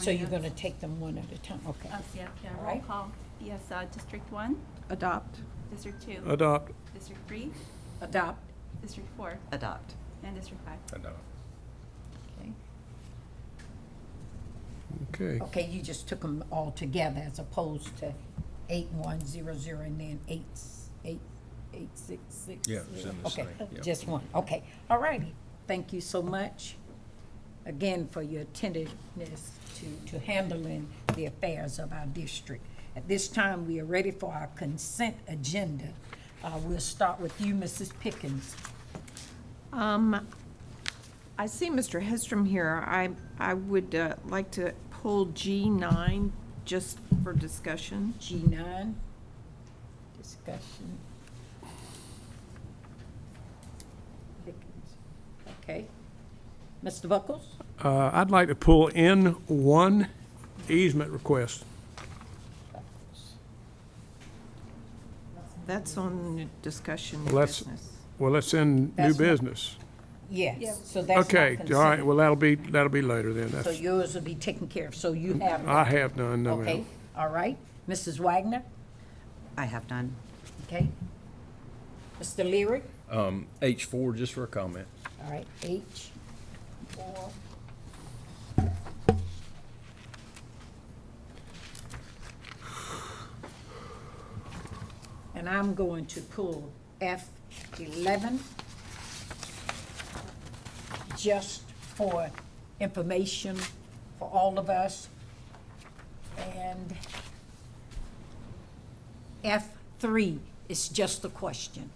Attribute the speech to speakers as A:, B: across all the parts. A: So you're gonna take them one at a time, okay.
B: Uh, yeah, yeah,
A: All
B: roll
A: right.
B: call. Yes, uh, District one,
C: Adopt.
B: District two,
D: Adopt.
B: District three,
C: Adopt.
B: District four,
C: Adopt.
B: and District five.
A: Okay.
D: Okay.
A: Okay, you just took them all together as opposed to eight one zero zero and then eight, s- eight, eight six six.
E: Yeah, it's in the
A: Okay,
E: same, yeah.
A: just one, okay, all righty, thank you so much again for your attentiveness to, to handling the affairs of our district. At this time, we are ready for our consent agenda. Uh, we'll start with you, Mrs. Pickens.
C: Um, I see Mr. Hedstrom here. I, I would uh, like to pull G9 just for discussion.
A: G nine, discussion. Pickens. Okay. Mr. Buckles?
D: Uh, I'd like to pull in one easement request.
C: That's on the discussion new
D: Let's-
C: business.
D: Well, that's in new
A: That's not-
D: business.
B: Yeah.
A: Yes, so that's not
D: Okay, all right,
A: consent.
D: well, that'll be, that'll be later then.
A: So
D: That's, Mm,
A: yours will be taken care of, so you have.
D: I have none, no,
A: Okay,
D: ma'am.
A: all right. Mrs. Wagner,
F: I have none.
A: okay. Mr. Leary,
E: Um, H four, just for a comment.
A: all right, H. Four. And I'm going to pull F eleven just for information for all of us. And F3 is just a question.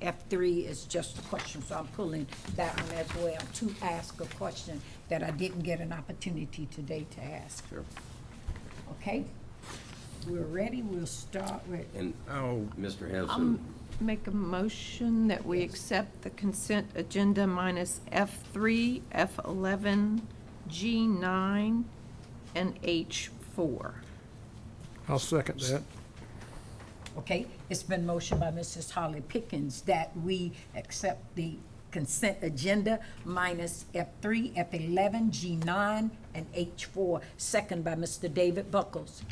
A: F3 is just a question, so I'm pulling that one as well to ask a question that I didn't get an opportunity today to ask. Okay? We're ready, we'll start with,
G: And, oh, Mr.
C: Um,
G: Henson,
C: Make a motion that we accept the consent agenda minus F3, F11, G9, and H4.
D: I'll second that.
A: okay? It's been motioned by Mrs. Holly Pickens that we accept the consent agenda minus F3, F11, G9, and H4, second by Mr. David Buckles.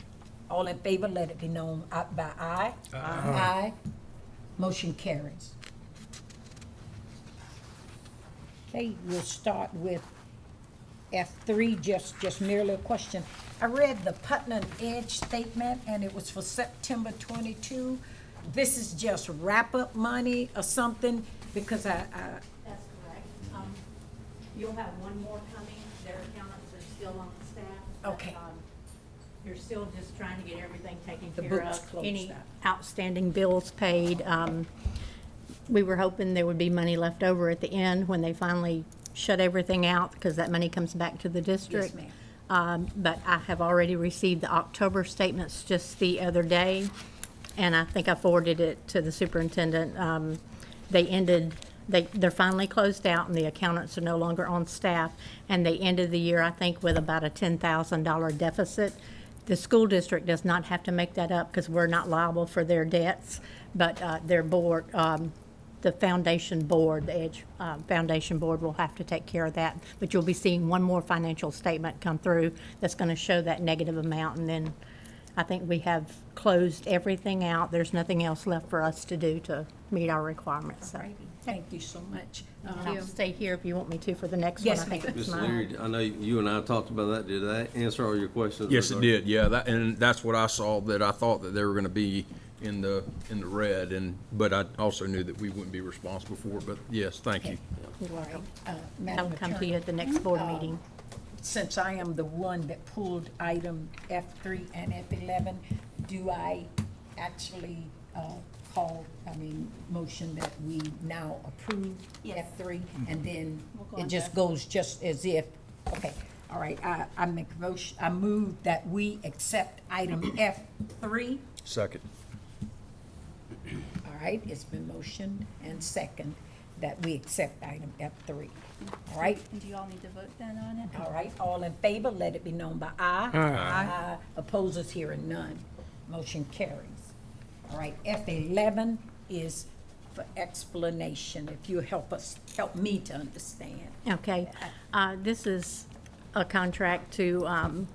A: All in favor, let it be known uh, by aye. Aye. Motion carries. Okay, we'll start with F3, just, just merely a question. I read the Putnam Edge statement, and it was for September 22. This is just wrap-up money or something, because I, I,
H: That's correct. Um, You'll have one more coming. Their accountants are still on the staff. but,
A: Okay.
H: um, You're still just trying to get everything taken
A: The
H: care
A: books
H: of.
A: closed
H: Any
A: up.
H: outstanding bills paid. Um, We were hoping there would be money left over at the end when they finally shut everything out, because that money comes back to the district.
A: ma'am.
H: Um, But I have already received the October statements just the other day, and I think I forwarded it to the superintendent. Um, They ended, they, they're finally closed out, and the accountants are no longer on staff, and they ended the year, I think, with about a $10,000 deficit. The school district does not have to make that up, because we're not liable for their debts, but uh, their board, um, the foundation board, the Edge uh, Foundation Board will have to take care of that. But you'll be seeing one more financial statement come through that's going to show that negative amount. And then I think we have closed everything out. There's nothing else left for us to do to meet our requirements. So
A: thank you so much. Uh,
H: I'll stay here if you want me to for the next one.
A: Yes,
H: I think
A: ma'am.
H: it's
G: Mr.
H: mine.
G: Leary, I know you and I talked about that. Did that answer all your questions?
E: Yes, it
G: regarding-
E: did, yeah, that, and that's what I saw, that I thought that they were gonna be in the, in the red, and, but I also knew that we wouldn't be responsible for it, but yes, thank you.
H: You're welcome.
A: Uh,
H: I'll
A: Madam
H: come to
A: Attorney,
H: you at the next board meeting.
A: since I am the one that pulled item F3 and F11, do I actually uh, call, I mean, motion that we now approve
B: Yes.
A: F3? And then
B: We'll go
A: it
B: on
A: just
B: to-
A: goes just as if, okay, all right, I, I make a motion, I move that we accept item F3.
E: Second.
A: All right, it's been motioned and second that we accept item F3. All right,
B: And do you all need to vote then on it?
A: all right, all in favor, let it be known by aye. Aye. Opposers here and none. Motion carries. All right, F eleven is for Oh. explanation, if you help us, help me to understand.
H: Okay, uh, this is a contract to um,